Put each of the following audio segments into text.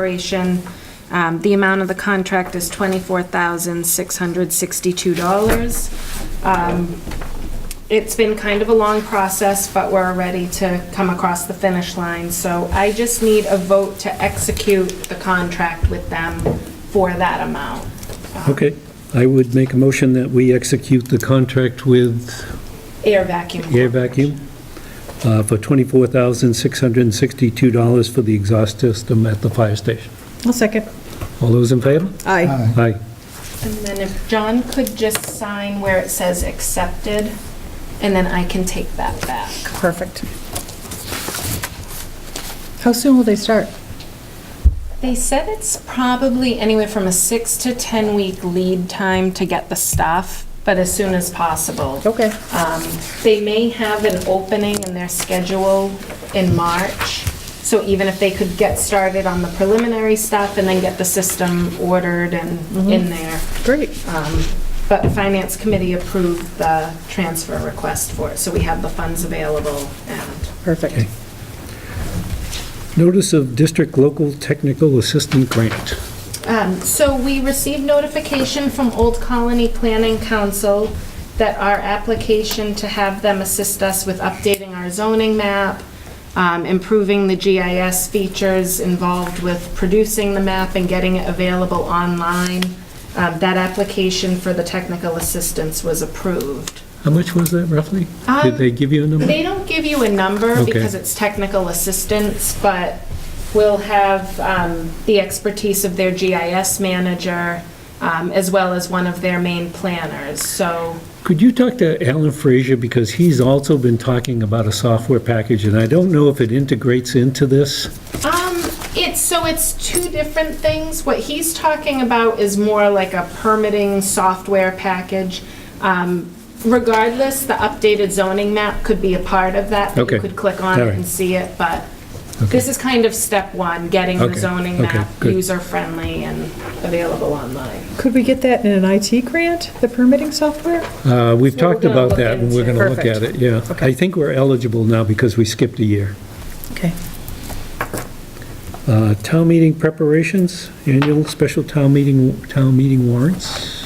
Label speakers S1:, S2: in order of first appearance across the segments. S1: Corporation. Um, The amount of the contract is $24,662. Um, It's been kind of a long process, but we're ready to come across the finish line. So I just need a vote to execute the contract with them for that amount.
S2: Okay, I would make a motion that we execute the contract with
S1: Air vacuum.
S2: Air Vacuum uh, for $24,662 for the exhaust system at the fire station.
S3: I'll second.
S2: All those in favor?
S3: Aye.
S2: Aye.
S1: And then if John could just sign where it says accepted, and then I can take that back.
S3: Perfect. How soon will they start?
S1: They said it's probably anywhere from a six to 10 week lead time to get the stuff, but as soon as possible.
S3: Okay.
S1: Um, They may have an opening in their schedule in March, so even if they could get started on the preliminary stuff and then get the system ordered and in there.
S3: Great.
S1: Um, But Finance Committee approved the transfer request for it, so we have the funds available and
S3: Perfect.
S2: Notice of District Local Technical Assistant Grant.
S1: Um, So we received notification from Old Colony Planning Council that our application to have them assist us with updating our zoning map, um, improving the GIS features involved with producing the map and getting it available online, um, that application for the technical assistance was approved.
S2: How much was that roughly? Did
S1: Um,
S2: they give you a number?
S1: They don't give you a number
S2: Okay.
S1: because it's technical assistance, but we'll have um, the expertise of their GIS manager um, as well as one of their main planners. So
S2: Could you talk to Alan Frazier, because he's also been talking about a software package, and I don't know if it integrates into this.
S1: Um, it's, so it's two different things. What he's talking about is more like a permitting software package. Um, regardless, the updated zoning map could be a part of that.
S2: Okay.
S1: You could click on
S2: All
S1: it
S2: right.
S1: and see it, but this is kind of step one, getting the
S2: Okay.
S1: zoning
S2: Okay,
S1: map
S2: good.
S1: user-friendly and available online.
S3: Could we get that in an IT grant, the permitting
S2: Uh,
S3: software?
S2: We've
S1: So we're
S2: talked
S1: gonna
S2: about
S1: look
S2: that, and we're
S1: into-
S2: going to look at it, yeah.
S3: Okay.
S2: I think we're eligible now because we skipped a year.
S3: Okay.
S2: Uh, Town meeting preparations, annual special town meeting, town meeting warrants.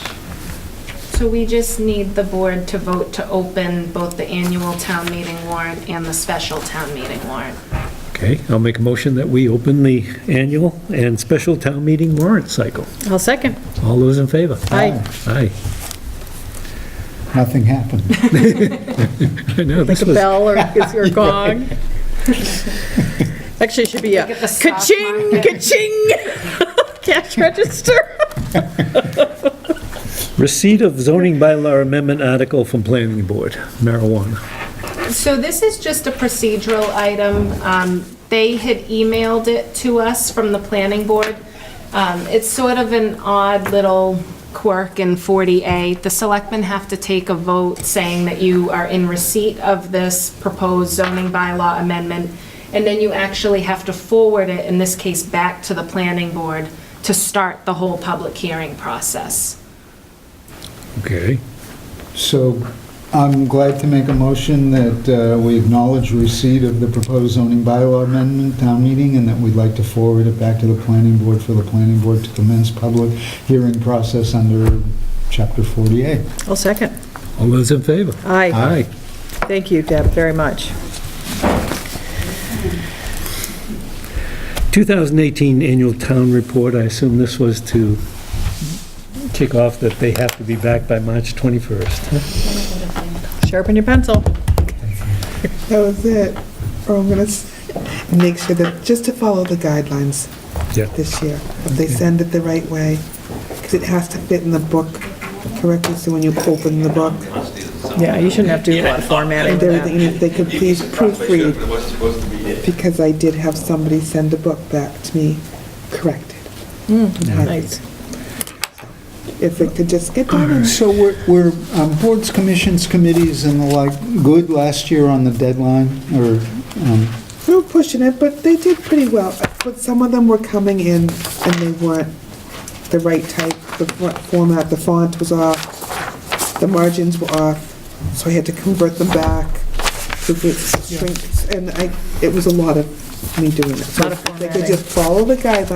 S1: So we just need the board to vote to open both the annual town meeting warrant and the special town meeting warrant.
S2: Okay, I'll make a motion that we open the annual and special town meeting warrant cycle.
S3: I'll second.
S2: All those in favor?
S3: Aye.
S2: Aye.
S4: Oh, Nothing happened.
S2: I know, this
S3: Like a
S2: was,
S3: bell or or gong. Actually, it should be a
S1: Look at the stock
S3: ka-ching,
S1: market.
S3: ka-ching. Cash register.
S2: receipt of zoning bylaw amendment article from planning board, marijuana.
S1: So this is just a procedural item. Um, They had emailed it to us from the planning board. Um, It's sort of an odd little quirk in 40A. The selectmen have to take a vote saying that you are in receipt of this proposed zoning bylaw amendment, and then you actually have to forward it, in this case, back to the planning board to start the whole public hearing process.
S2: Okay.
S4: So I'm glad to make a motion that uh, we acknowledge receipt of the proposed zoning bylaw amendment town meeting and that we'd like to forward it back to the planning board for the planning board to commence public hearing process under chapter 48.
S3: I'll second.
S2: All those in favor?
S3: Aye.
S2: Aye.
S3: Thank you, Deb, very much.
S2: 2018 annual town report, I assume this was to kick off that they have to be back by March 21st.
S3: Sharpen your pencil.
S5: That was it. Or I'm gonna s- make sure that, just to follow the guidelines
S2: Yeah.
S5: this year. If they send it the right way, because it has to fit in the book correctly, so when you open the book
S3: Yeah, you shouldn't have to do a lot of formatting
S5: and
S3: for
S5: everything,
S3: that.
S5: and if they could please proofread. Because I did have somebody send a book back to me corrected. and highlighted.
S3: Nice.
S5: If they could just get down and
S4: So were- were um, boards, commissions, committees, and the like good last year on the deadline? Or, um,
S5: We were pushing it, but they did pretty well. But some of them were coming in and they weren't the right type, the fo- format, the font was off, the margins were off, so I had to convert them back. to the shrink- And I, it was a lot of me doing it. So
S1: Lot of
S5: They could
S1: formatting.
S5: just follow the guidelines